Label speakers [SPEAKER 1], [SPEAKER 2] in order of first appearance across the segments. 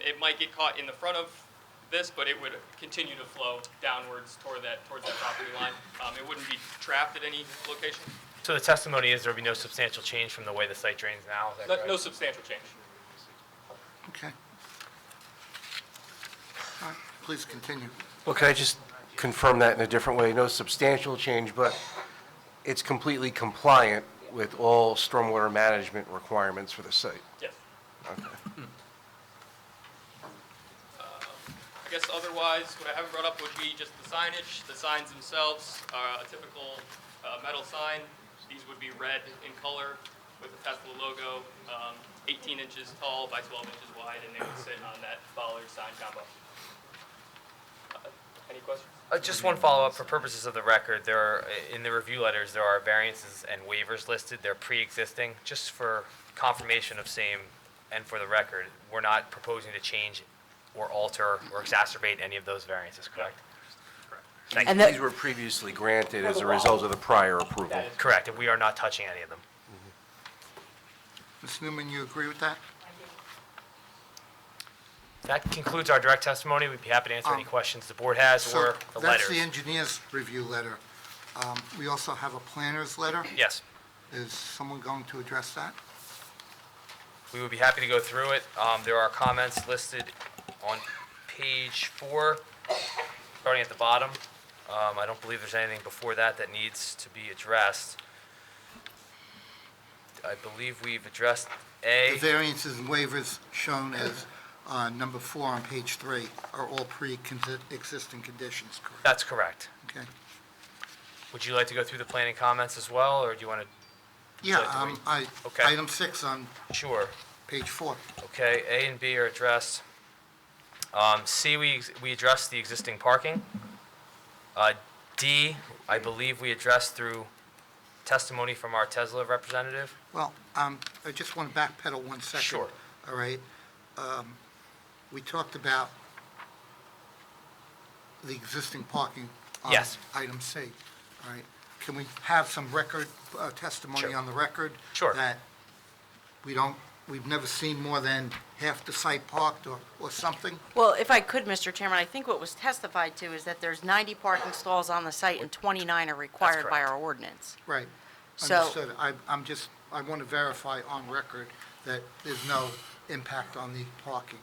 [SPEAKER 1] it might get caught in the front of this, but it would continue to flow downwards toward that, towards that property line. Um, It wouldn't be trapped at any location.
[SPEAKER 2] So the testimony is there will be no substantial change from the way the site drains now, is that
[SPEAKER 1] No
[SPEAKER 2] correct?
[SPEAKER 1] no substantial change.
[SPEAKER 3] Okay. All right, please continue.
[SPEAKER 4] Well, can I just confirm that in a different way? No substantial change, but it's completely compliant with all stormwater management requirements for the site.
[SPEAKER 1] Yes. Um,
[SPEAKER 4] Okay.
[SPEAKER 1] I guess otherwise, what I haven't brought up would be just the signage. The signs themselves are a typical uh, metal sign. These would be red in color with the Tesla logo, um, 18 inches tall by 12 inches wide, and they would sit on that bollard sign combo. Uh, Any questions?
[SPEAKER 2] Uh, Just one follow-up, for purposes of the record, there are, in the review letters, there are variances and waivers listed, they're pre-existing, just for confirmation of same and for the record, we're not proposing to change or alter or exacerbate any of those variances, correct? Thank
[SPEAKER 5] And
[SPEAKER 2] you.
[SPEAKER 5] that-
[SPEAKER 4] These were previously granted as a result of the prior approval.
[SPEAKER 2] Correct, and we are not touching any of them.
[SPEAKER 3] Ms. Newman, you agree with that?
[SPEAKER 2] That concludes our direct testimony, we'd be happy to answer any
[SPEAKER 3] Um,
[SPEAKER 2] questions the board has
[SPEAKER 3] So
[SPEAKER 2] or the
[SPEAKER 3] That's the
[SPEAKER 2] letters.
[SPEAKER 3] engineer's review letter. Um, We also have a planner's letter.
[SPEAKER 2] Yes.
[SPEAKER 3] Is someone going to address that?
[SPEAKER 2] We would be happy to go through it. Um, there are comments listed on page four, starting at the bottom. Um, I don't believe there's anything before that that needs to be addressed. I believe we've addressed
[SPEAKER 3] The
[SPEAKER 2] A.
[SPEAKER 3] variances and waivers shown as uh, number four on page three are all pre-existing conditions, correct?
[SPEAKER 2] That's correct.
[SPEAKER 3] Okay.
[SPEAKER 2] Would you like to go through the planning comments as well, or do you want
[SPEAKER 3] Yeah,
[SPEAKER 2] So do we-
[SPEAKER 3] um, I,
[SPEAKER 2] Okay.
[SPEAKER 3] item six on
[SPEAKER 2] to? Sure.
[SPEAKER 3] page four.
[SPEAKER 2] Okay, A and B are addressed. Um, C, we, we addressed the existing parking. Uh, D, I believe we addressed through testimony from our Tesla representative.
[SPEAKER 3] Well, um, I just want to backpedal one second.
[SPEAKER 2] Sure.
[SPEAKER 3] All right? Um, We talked about the existing parking. on
[SPEAKER 2] Yes.
[SPEAKER 3] Item C, all right? Can we have some record, uh, testimony
[SPEAKER 2] Sure.
[SPEAKER 3] on the record?
[SPEAKER 2] Sure.
[SPEAKER 3] That we don't, we've never seen more than half the site parked or, or something?
[SPEAKER 5] Well, if I could, Mr. Chairman, I think what was testified to is that there's 90 parking stalls on the site and 29 are required by
[SPEAKER 2] correct.
[SPEAKER 5] our ordinance.
[SPEAKER 3] Right.
[SPEAKER 5] So-
[SPEAKER 3] Understood. I, I'm just, I want to verify on record that there's no impact on the parking.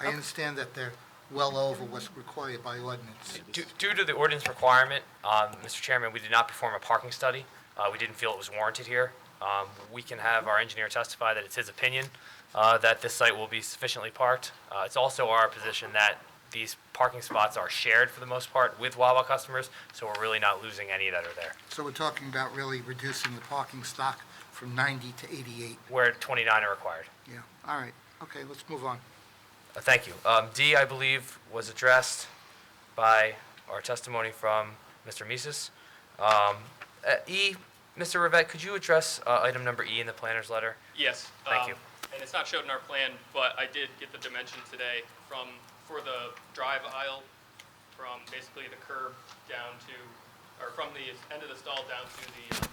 [SPEAKER 3] I understand that they're well over what's required by ordinance.
[SPEAKER 2] Due due to the ordinance requirement, um, Mr. Chairman, we did not perform a parking study. Uh, We didn't feel it was warranted here. Um, We can have our engineer testify that it's his opinion uh, that this site will be sufficiently parked. Uh, It's also our position that these parking spots are shared for the most part with Wawa customers, so we're really not losing any that are there.
[SPEAKER 3] So we're talking about really reducing the parking stock from 90 to 88.
[SPEAKER 2] Where 29 are required.
[SPEAKER 3] Yeah, all right. Okay, let's move on.
[SPEAKER 2] Uh, Thank you. Um, D, I believe, was addressed by our testimony from Mr. Mises. Um, uh, E, Mr. Rivette, could you address uh, item number E in the planner's letter?
[SPEAKER 1] Yes.
[SPEAKER 2] Thank
[SPEAKER 1] um,
[SPEAKER 2] you.
[SPEAKER 1] And it's not showed in our plan, but I did get the dimension today from, for the drive aisle, from basically the curb down to, or from the end of the stall down to the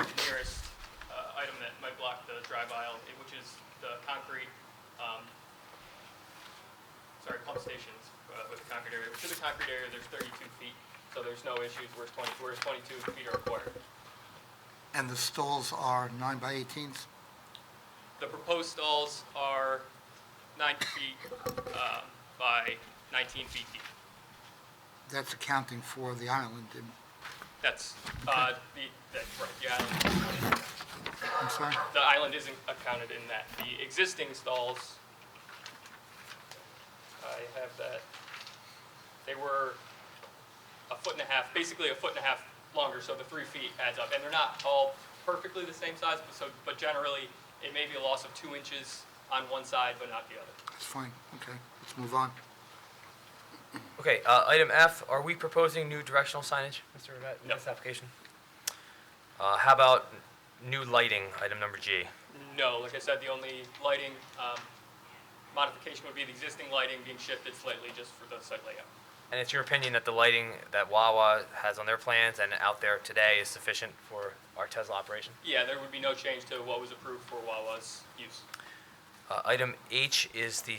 [SPEAKER 1] uh, nearest uh, item that might block the drive aisle, eh, which is the concrete, um, sorry, pump stations uh, with the concrete area. To the concrete area, there's 32 feet, so there's no issues, whereas 20, whereas 22 feet are required.
[SPEAKER 3] And the stalls are 9 by 18s?
[SPEAKER 1] The proposed stalls are nine feet um, by 19 feet deep.
[SPEAKER 3] That's accounting for the island. and-
[SPEAKER 1] That's, uh, the, that's right, the island,
[SPEAKER 3] I'm sorry?
[SPEAKER 1] the island isn't accounted in that. The existing stalls, I have that, they were a foot and a half, basically a foot and a half longer, so the three feet adds up. And they're not all perfectly the same size, but so, but generally, it may be a loss of two inches on one side, but not the other.
[SPEAKER 3] That's fine. Okay, let's move on.
[SPEAKER 2] Okay, uh, item F, are we proposing new directional signage, Mr. Rivette, in
[SPEAKER 1] No.
[SPEAKER 2] this application? Uh, How about new lighting, item number G?
[SPEAKER 1] No, like I said, the only lighting um, modification would be the existing lighting being shifted slightly just for the site layout.
[SPEAKER 2] And it's your opinion that the lighting that Wawa has on their plans and out there today is sufficient for our Tesla operation?
[SPEAKER 1] Yeah, there would be no change to what was approved for Wawa's use.
[SPEAKER 2] Uh, Item H is the